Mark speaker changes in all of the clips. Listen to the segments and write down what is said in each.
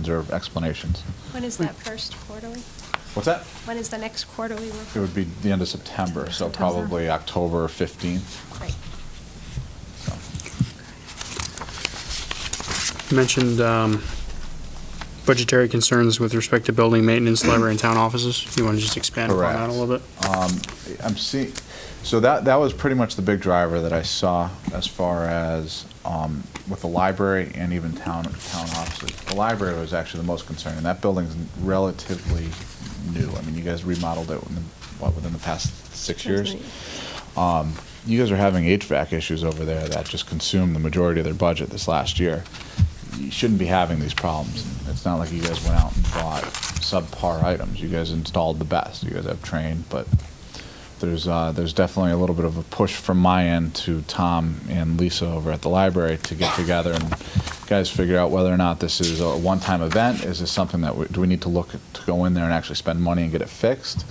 Speaker 1: questions or explanations.
Speaker 2: When is that first quarterly?
Speaker 1: What's that?
Speaker 2: When is the next quarterly
Speaker 1: It
Speaker 2: report?
Speaker 1: would be the end of September, so
Speaker 2: September.
Speaker 1: probably October 15th.
Speaker 2: Great.
Speaker 1: so.
Speaker 3: You Mentioned um, budgetary concerns with respect to building maintenance, library, and town offices. You want to just expand upon that a
Speaker 1: Correct.
Speaker 3: little bit?
Speaker 1: I'm seeing, so that, that was pretty much the big driver that I saw as far as um, with the library and even town, town offices. The library was actually the most concerning. That building's relatively new. I mean, you guys remodeled it, within, what, within the past six years? Um, You guys are having HVAC issues over there that just consumed the majority of their budget this last year. You shouldn't be having these problems. It's not like you guys went out and bought subpar items. You guys installed the best. You guys have trained, but there's, uh, there's definitely a little bit of a push from my end to Tom and Lisa over at the library to get together and guys figure out whether or not this is a one-time event. Is this something that, we- do we need to look, at- to go in there and actually spend money and get it fixed?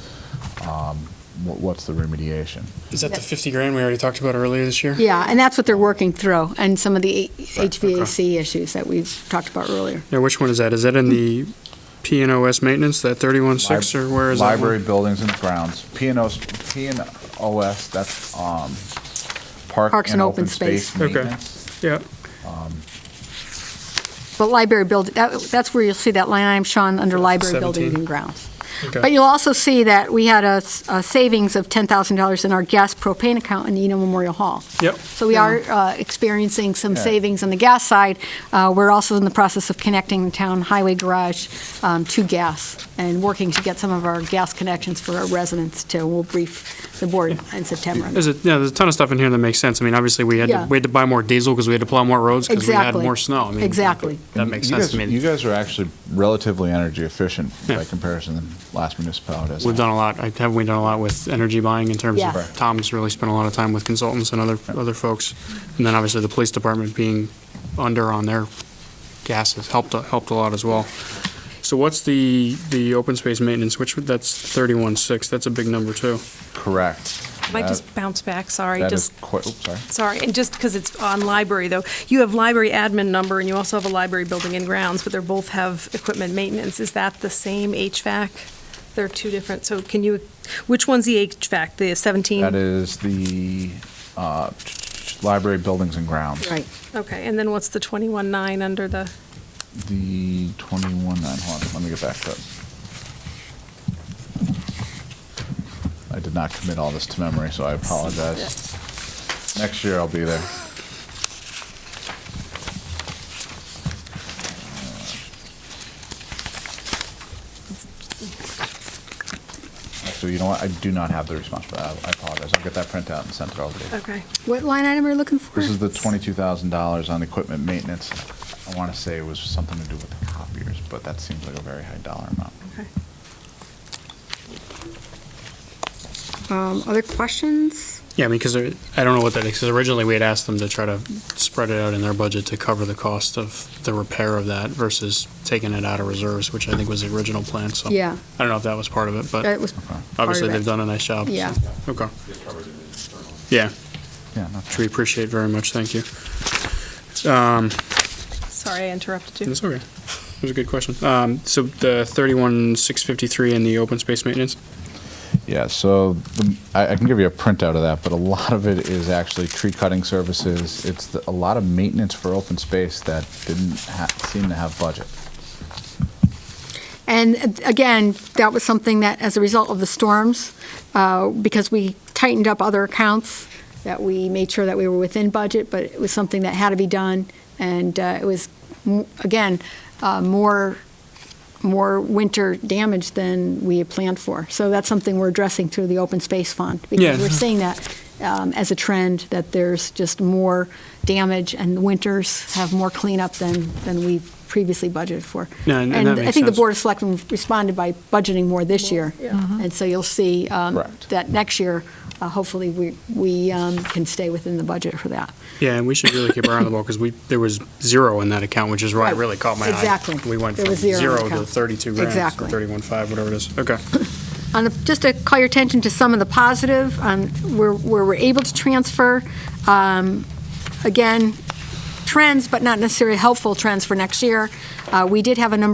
Speaker 1: Um, wh- What's the remediation?
Speaker 3: Is that the 50 grand we already talked about earlier this year?
Speaker 4: Yeah, and that's what they're working through, and some of the
Speaker 3: Right, okay.
Speaker 4: HVAC issues that we've talked about earlier.
Speaker 3: Now, which one is that? Is that in the P and OS maintenance, that 31.6, or where is that? one?
Speaker 1: Library buildings and grounds, P and O's, P and OS, that's, um, park and open space
Speaker 3: Okay.
Speaker 1: maintenance.
Speaker 3: Yeah,
Speaker 4: But library building, that's where you'll see that line item, Sean, under library building
Speaker 3: 17.
Speaker 4: and grounds. But
Speaker 3: okay.
Speaker 4: you'll also see that we had a s- a savings of $10,000 in our gas propane account in Eno Memorial Hall.
Speaker 3: Yep,
Speaker 4: So we are uh, experiencing some
Speaker 1: Yeah.
Speaker 4: savings on the gas side. Uh, We're also in the process of connecting the town highway garage um, to gas and working to get some of our gas connections for our residents too. We'll brief the board in September. on that.
Speaker 3: there's a, yeah, there's a ton of stuff in here that makes sense. I mean, obviously, we had, to
Speaker 4: Yeah.
Speaker 3: we had to buy more diesel because we had to plow more roads because we had
Speaker 4: Exactly.
Speaker 3: more snow. I mean,
Speaker 4: Exactly.
Speaker 3: That
Speaker 1: And
Speaker 3: makes
Speaker 1: you
Speaker 3: sense
Speaker 1: guys-
Speaker 3: to
Speaker 1: You
Speaker 3: me.
Speaker 1: guys are actually relatively energy efficient by
Speaker 3: Yeah.
Speaker 1: comparison than last municipalities.
Speaker 3: We've done a lot, I- haven't we done a lot with energy buying in terms
Speaker 4: Yes.
Speaker 3: of, Tom's really spent a lot of time with consultants and other, other folks. And then obviously the police department being under on their gas has helped, helped a lot as well. So what's the, the open space maintenance, which, that's thirty-one six, that's a big number too.
Speaker 1: Correct.
Speaker 5: Might
Speaker 1: That-
Speaker 5: just bounce back, sorry,
Speaker 1: That is
Speaker 5: just,
Speaker 1: quite, oops, sorry.
Speaker 5: sorry, and just because it's on library, though, you have library admin number, and you also have a library building and grounds, but they both have equipment maintenance. Is that the same HVAC? They're two different, so can you, which one's the HVAC, the 17?
Speaker 1: That is the, uh, library buildings and grounds.
Speaker 4: Right.
Speaker 5: Okay, and then what's the 21.9 under the,
Speaker 1: The twenty-one nine, hold on, let me get back to it. I did not commit all this to memory, so I apologize. Next year I'll be there. Actually, you know what, I do not have the response, but I I apologize, I'll get that printout and send it over to you.
Speaker 5: okay.
Speaker 4: What line item are you looking for?
Speaker 1: This is the twenty-two thousand dollars on equipment maintenance. I want to say it was something to do with the copiers, but that seems like a very high dollar amount.
Speaker 5: Okay.
Speaker 4: Um, Other questions?
Speaker 3: Yeah, I mean, because I don't know what that is, because originally we had asked them to try to spread it out in their budget to cover the cost of the repair of that versus taking it out of reserves, which I think was the original plan, so.
Speaker 1: Oh.
Speaker 4: Yeah.
Speaker 3: I don't know if that was part of it, but.
Speaker 4: That was part
Speaker 3: Obviously,
Speaker 4: of
Speaker 3: they've
Speaker 4: it.
Speaker 3: done a nice job. so-
Speaker 4: Yeah.
Speaker 3: Okay. Yeah,
Speaker 1: Yeah, not
Speaker 3: which we appreciate very much, thank you.
Speaker 5: Sorry, I interrupted you.
Speaker 3: That's okay. It was a good question. Um, So the 31,653 in the open space maintenance?
Speaker 1: Yeah, so the, I, I can give you a printout of that, but a lot of it is actually tree cutting services. It's the, a lot of maintenance for open space that didn't ha- seem to have budget.
Speaker 4: And uh, again, that was something that, as a result of the storms, uh, because we tightened up other accounts, that we made sure that we were within budget, but it was something that had to be done. And uh, it was, m- again, uh, more, more winter damage than we had planned for. So that's something we're addressing through the open space fund.
Speaker 3: Yeah.
Speaker 4: Because we're seeing that um, as a trend, that there's just more damage and the winters have more cleanup than, than we've previously budgeted for.
Speaker 3: Yeah, and- and that
Speaker 4: I
Speaker 3: makes
Speaker 4: think the
Speaker 3: sense.
Speaker 4: Board of Selectmen responded by budgeting more this year.
Speaker 5: yeah.
Speaker 4: And so you'll see um,
Speaker 1: Correct.
Speaker 4: that next year, uh, hopefully, we we um, can stay within the budget for that.
Speaker 3: Yeah, and we should really keep our eye on the ball, because we, there was zero in that account, which is why it
Speaker 4: Right.
Speaker 3: really caught my eye.
Speaker 4: Oh, Exactly.
Speaker 3: We went
Speaker 4: There
Speaker 3: from
Speaker 4: was zero in the
Speaker 3: zero to
Speaker 4: account.
Speaker 3: 32 grand,
Speaker 4: Exactly.
Speaker 3: 31.5, whatever it is. Okay.
Speaker 4: On the, just to call your attention to some of the positive, um, where, where we're able to transfer, um, again, trends, but not necessarily helpful trends for next year. Uh, we did have a number